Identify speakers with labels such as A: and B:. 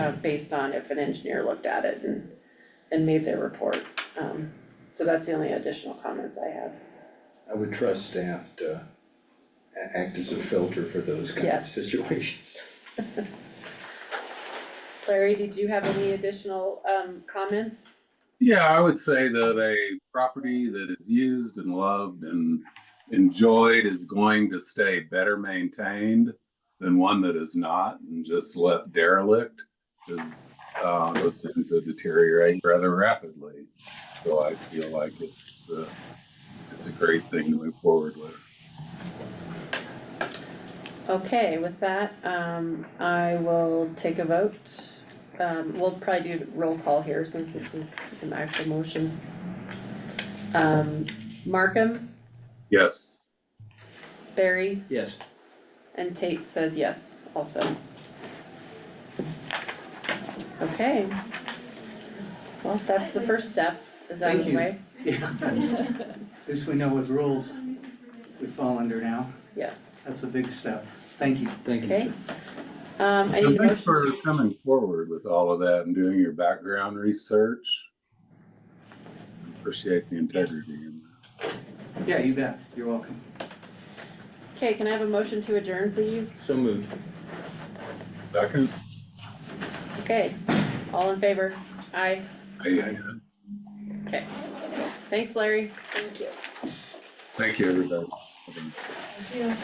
A: of uh, based on if an engineer looked at it and, and made their report. Um, so that's the only additional comments I have.
B: I would trust staff to a- act as a filter for those kind of
A: Yes.
B: situations.
A: Larry, did you have any additional, um, comments?
C: Yeah, I would say that a property that is used and loved and enjoyed is going to stay better maintained than one that is not and just left derelict is, uh, those tend to deteriorate rather rapidly. So I feel like it's, uh, it's a great thing to move forward with.
A: Okay, with that, um, I will take a vote. Um, we'll probably do roll call here since this is an actual motion. Um, Markham,
C: Yes,
A: Barry,
B: Yes.
A: and Tate says yes also. Okay. Well, that's the first step, is out of
D: Thank
A: the
D: you.
A: way.
D: Yeah, at least we know what rules we fall under now.
A: Yeah.
D: That's a big step. Thank you.
B: Thank you,
A: Okay.
B: sir.
A: Um, I
C: and
A: need a
C: thanks
A: motion,
C: for coming forward with all of that and doing your background research. Appreciate the integrity in that.
D: Yeah, you bet. You're welcome.
A: okay, can I have a motion to adjourn, please?
B: So moved.
C: Second?
A: Okay, all in favor? Aye.
C: I,
A: Thanks, Larry.
E: Thank you.
C: thank you, everybody.